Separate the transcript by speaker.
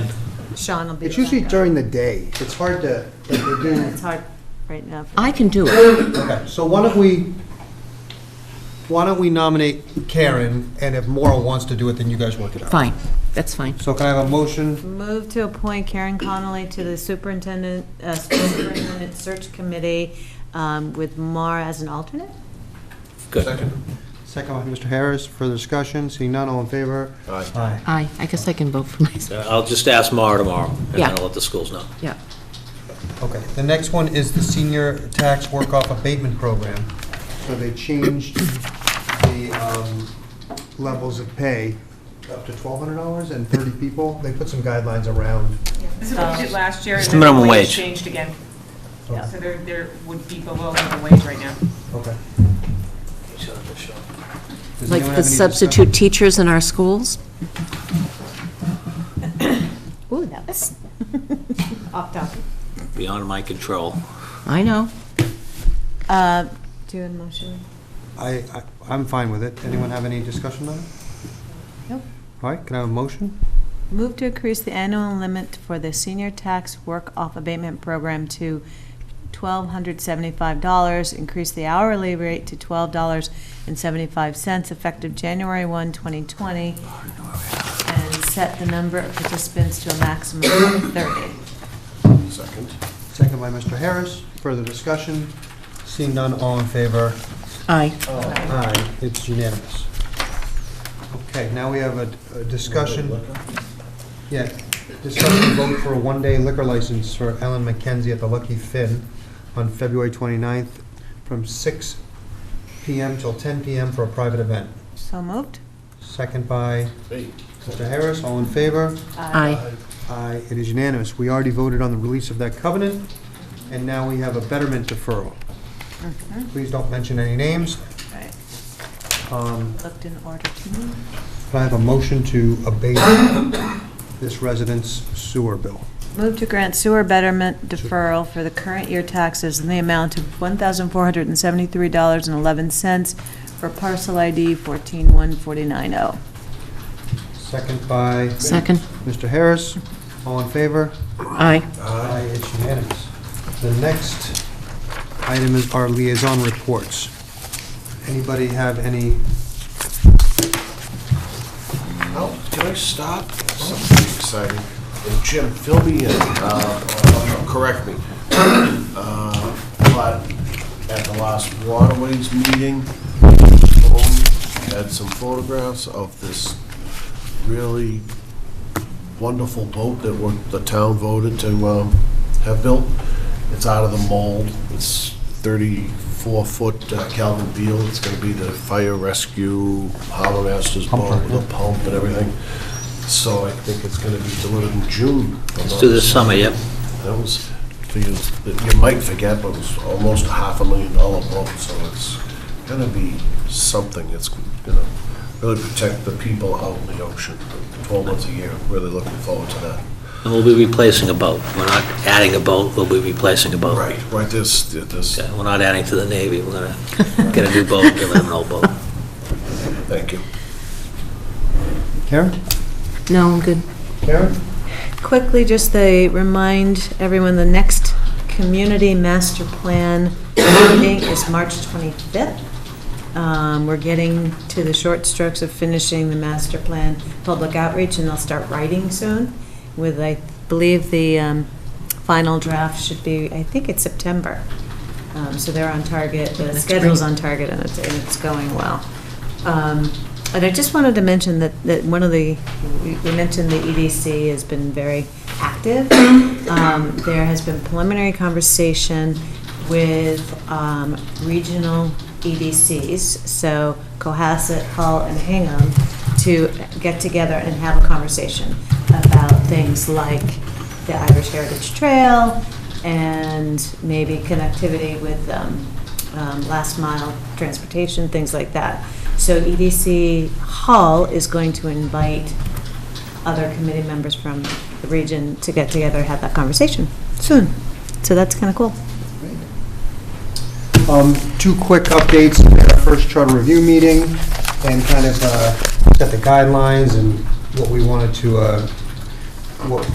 Speaker 1: Sean will be.
Speaker 2: It's usually
Speaker 1: back up.
Speaker 2: during the day. It's hard to, like, they do.
Speaker 1: It's hard right now. for-
Speaker 3: I can do it.
Speaker 2: Okay, so why don't we, why don't we nominate Karen, and if Maura wants to do it, then you guys work it out.
Speaker 3: Fine, that's fine.
Speaker 2: So can I have a motion?
Speaker 1: Move to appoint Karen Connolly to the superintendent, uh, superintendent search committee um, with Mar as an alternate?
Speaker 2: Second. Second by Mr. Harris. Further discussion? Seeing none, all in favor?
Speaker 4: Aye.
Speaker 2: Aye.
Speaker 3: I, I guess I can vote for myself.
Speaker 4: I'll just ask Mara tomorrow, and
Speaker 3: Yeah.
Speaker 4: then I'll let the schools know.
Speaker 3: Yeah.
Speaker 2: Okay, the next one is the senior tax work-off abatement program. So they changed the um, levels of pay up to $1,200 and 30 people. They put some guidelines around.
Speaker 5: This is what we did last year, and
Speaker 4: It's
Speaker 5: then the
Speaker 4: minimum
Speaker 5: wage
Speaker 4: wage.
Speaker 5: changed again.
Speaker 2: Yeah.
Speaker 5: So there, there would be below minimum wage right now.
Speaker 2: Okay. Does anyone
Speaker 3: Like
Speaker 2: have
Speaker 3: the
Speaker 2: any
Speaker 3: substitute teachers in our schools?
Speaker 1: Ooh, that was off topic.
Speaker 4: Beyond my control.
Speaker 3: I know.
Speaker 1: Uh, Do you have a motion?
Speaker 2: discussion? I, I- I'm fine with it. Anyone have any discussion on it?
Speaker 1: Nope.
Speaker 2: All right, can I have a motion?
Speaker 1: Move to increase the annual limit for the senior tax work-off abatement program to $1,275, increase the hourly rate to $12.75 effective January 1, 2020, and set the number of participants to a maximum of 30.
Speaker 4: Second.
Speaker 2: Second by Mr. Harris. Further discussion? Seeing none, all in favor?
Speaker 3: Aye.
Speaker 2: Aye, it's unanimous. Okay, now we have a- a discussion. Yeah, discussion vote for a one-day liquor license for Ellen McKenzie at the Lucky Finn on February 29th from 6 PM till 10 PM for a private event.
Speaker 1: So moved?
Speaker 2: Second by Mr. Harris, all in favor?
Speaker 3: Aye.
Speaker 2: Aye, it is unanimous. We already voted on the release of that covenant, and now we have a betterment deferral. Please don't mention any names.
Speaker 1: Right.
Speaker 2: Um,
Speaker 1: Looked in order to me.
Speaker 2: Can I have a motion to abate this resident's sewer bill?
Speaker 1: Move to grant sewer betterment deferral for the current year taxes in the amount of $1,473.11 for parcel ID 141490.
Speaker 2: Second by
Speaker 3: Second?
Speaker 2: Mr. Harris. All in favor?
Speaker 3: Aye.
Speaker 2: Aye, it's unanimous. The next item is our liaison reports. Anybody have any?
Speaker 6: Oh, can I stop? Something exciting. And Jim, fill me in, uh, correct me. Uh, But at the last waterways meeting, I had some photographs of this really wonderful boat that we're- the town voted to um, have built. It's out of the mold. It's 34-foot Calvin Beal. It's going to be the fire rescue harbor master's boat with a pump and everything. So I think it's going to be delivered in June.
Speaker 4: Let's do this summer, yep.
Speaker 6: That was, for you you might forget, but it was almost a half a million dollar boat, so it's gonna be something. It's gonna really protect the people out in the ocean. Twelve months a year, really looking forward to that.
Speaker 4: And we'll be replacing a boat. We're not adding a boat, we'll be replacing a boat.
Speaker 6: Right, right, this, this,
Speaker 4: Yeah, We're not adding to the Navy, we're gonna get a new boat, give them an old boat.
Speaker 6: thank you.
Speaker 2: Karen?
Speaker 3: No, I'm good.
Speaker 2: Karen?
Speaker 1: Quickly, just they remind everyone, the next community master plan meeting is March 25th. Um, We're getting to the short strokes of finishing the master plan public outreach, and they'll start writing soon with, I believe, the um, final draft should be, I think it's September. Um, So they're on target, the schedule's on target, and it's, and it's going well. Um, And I just wanted to mention that, that one of the, we we mentioned the EDC has been very active. Um, There has been preliminary conversation with um, regional EDCs, so Cohasset, Hull, and Hingham, to get together and have a conversation about things like the Irish Heritage Trail and maybe connectivity with um, um, last mile transportation, things like that. So E EDC Hull is going to invite other committee members from the region to get together, and have that conversation soon. So that's kind of cool.
Speaker 2: Um, Two quick updates, we had our first charter review meeting, and kind of uh, set the guidelines and what we wanted to, uh, what